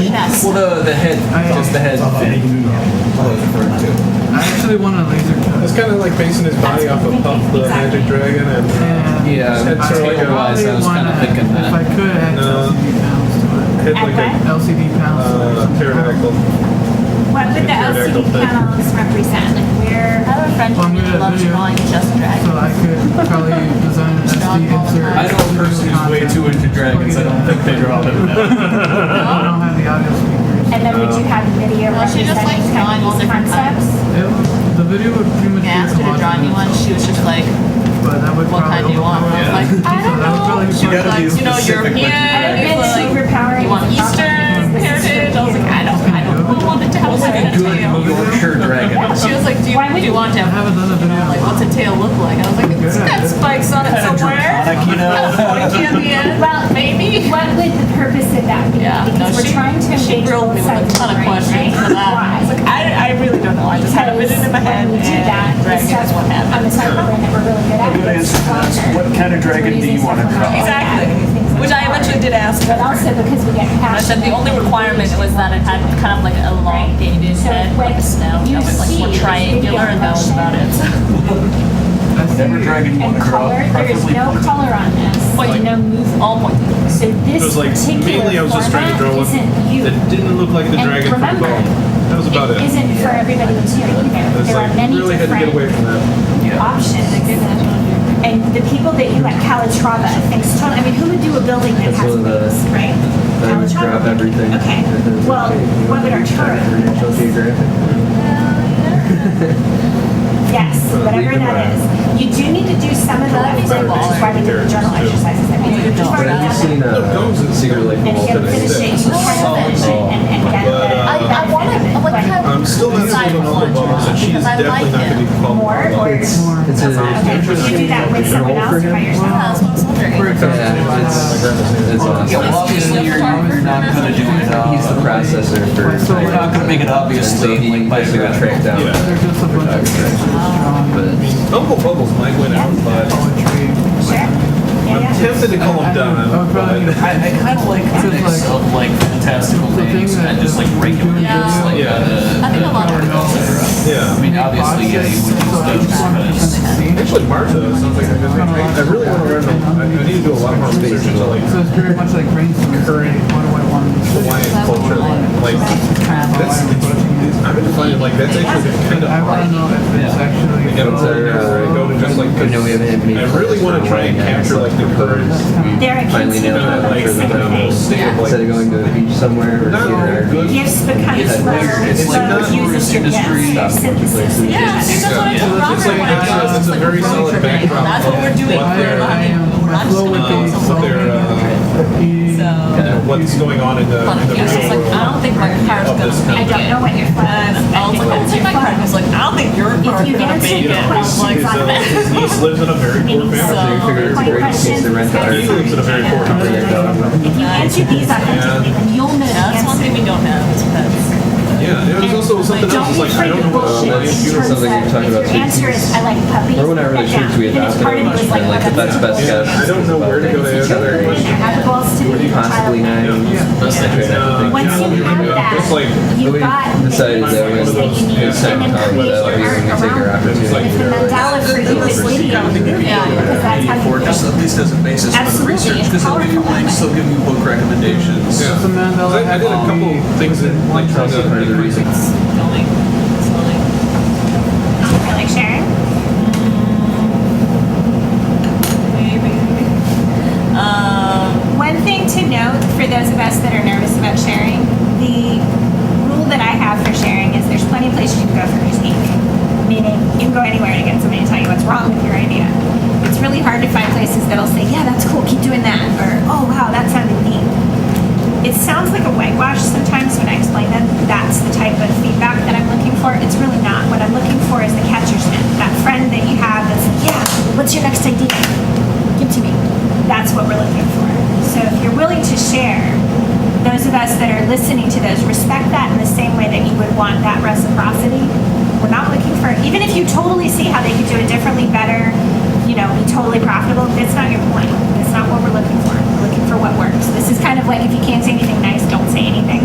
Yes. Well, the, the head, I- just the head thing. I actually want a laser It's cut. kind of like basing his body off of Puff the Exactly. Magic Dragon and And Yeah, That's I sort of like a- wise, I was kinda probably wanna, thinking that. If I could, add No. LCD pounds to hit like Okay. a it. LCD pounds. uh, pterodactyl. What would the LCD panels represent? Like where? I have a friend One who minute, loves yeah. drawing just So dragons. I could probably design an SD insert. I know a person who's way too into dragons. I don't think they draw them. I don't have the audio speakers. And then would you have video Well, she just representing likes drawing kind of all these different concepts? It would- the video would pretty much When I be asked her to draw me one, she was just like, but that would what probably kind do you want? And I was like, I don't know. She was like, you know, European, I've like, been superpowering. you want Eastern heritage? I was like, I don't, I don't want it to have like a Good tail. Yorkshire dragon. She was like, do you, Why would do you want to I have have, another video. like, what's a tail look like? I was like, it's got spikes on it somewhere. Like, you know, Pointy at the end, well, maybe. What would the purpose of that be? Yeah, no, Because we're she- trying to She engage grilled me both with sides a of ton the of brain, questions right? for that. I was Why? like, I, I really don't know. I just had a vision in my head Because when we do that, and the dragon stuff is what On the happened. side of the brain that we're really good at. good answer to is that. What kind of dragon do you want to draw? Exactly, which I eventually did ask her. But also because we get I passionate. said the only requirement was that it had kind of like a elongated So head, like a when snout, you that was like see more the triangular, and that was about it. I see. Whatever dragon you want And to draw, color, there is preferably. no color on this. But you know, move all pointy. So It was this like mainly I particular was just trying to draw format one isn't you. that didn't look like the And dragon from remember, Bone. That was about it. It isn't for everybody to either. It's There are like many really had to get away different from that. options. And the people that you at Calatrava thinks totally, I mean, who would do a building that That's has one of the- wings, right? I would grab Calatrava. everything. Okay, well, what would our National Arturo? Geographic. Yes, Or whatever leave it that is. You do need to do some of the, Well, which better is why we did the than journal carrots, too. exercises. I mean, Yeah, we've you don't. But have you already done seen it. No, uh, goes is- Secret Lake And Wall he'll finish today? it, he'll finish it, and, and get But, the. uh, I, I want to, like, have I'm still a not side on one Uncle Bones, and she's because I like definitely not going it. to be called More Uncle or? Bones. It's Okay, a. would you do that with someone Roll for else or by him? yourself? Yeah, that's what I was wondering. For example, Yeah, it's- It's Yeah, well, awesome. obviously, you're not gonna do it. uh, He's the processor for. You're not gonna make it obviously, So he like, by basically got tracked down. Yeah. They're just a bunch of pictures drawn Oh. But Uncle Bubbles might win out, but poetry. Sure, I'm yeah, yeah. tempted to call him I would probably Don. need a but- I, I kind of like It's the mix like- of like fantastical the thing things that- and just like regular Yeah. things. Like, Yeah. uh, I think a lot of people. Yeah. I mean, obviously, yeah, you would use those. but- Actually, Martha sounds like a good thing. I I really want to learn. I I need to do a lot more research into like So it's very much like brainstorming. Current- What do I want? Hawaiian culture. Like that's. I'm going to find it like that's actually kind of I want to hard. know if it's actually. Like, I don't know. Go to just like. I know we haven't had many. I really want to try and capture like the current. There are Finally kids who nailed are that Like for the the demo. state of like. uh, Instead of going to a beach somewhere or Not all theater. good. Gifts It's becomes like- where it's like love the uses your industry. gifts, synthesis of Yeah, I gifts. think that's what I told Yeah. Robert It's like- when I it's- got it's a very solid backdrop That's what we're doing. of what We're they're, not even- we're My not just flow gonna would go be uh, somewhere. their, uh, So, uh, what's going on in the, in the yeah, I was real like, I world. don't think my car's Of gonna this I make don't know it. what your plan And is. I was like, I'll take my car. And he was like, I don't think your car's you gonna answer make the it. I was question- like, His, uh, his niece lives in a very poor family. I figured it's a great excuse to rent the art. He lives in a very poor family. If you answer these authentically, you'll know the Yeah, that's one answer. thing we don't have is pets. Yeah, there was also something else. It's like, I don't know what Well, Hawaiian that's funeral. something we talked about. If your answer is, I like puppies. Or when I really put that church, we down. adopted a Even if part of it much was friend, like, oh, but that's best Yeah, I guess. don't know where to go to answer that And question. have the balls to do Possibly it. nine. That's like And, uh, Once you yeah, have that, It's like, You've We got. the decided that pieces we was that you need good time to then time create without your using to take our art around it. opportunity. If the mandala for you is leading, Yeah. because that's how you. uh, Just at least as a basis for the Absolutely, research, it's because they'll give you powerful. links, they'll give you book recommendations. yeah. It's a mandala I I did a hat. couple things in like trying Also part of the to. reason. Going slowly. I like sharing. Maybe. Um, One thing to note for those of us that are nervous about sharing, the rule that I have for sharing is there's plenty of places you can go for critique. Meaning, you can go anywhere to get somebody to tell you what's wrong with your idea. It's really hard to find places that'll say, yeah, that's cool, keep doing that, or, oh, wow, that sounded neat. It sounds like a whitewash sometimes when I explain that that's the type of feedback that I'm looking for. It's really not. What I'm looking for is the catcher's mitt, that friend that you have that's like, yeah, what's your next idea? Give it to me. That's what we're looking for. So if you're willing to share, those of us that are listening to those respect that in the same way that you would want that reciprocity. We're not looking for, even if you totally see how they could do it differently, better, you know, be totally profitable, that's not your point. That's not what we're looking for. We're looking for what works. This is kind of like if you can't say anything nice, don't say anything.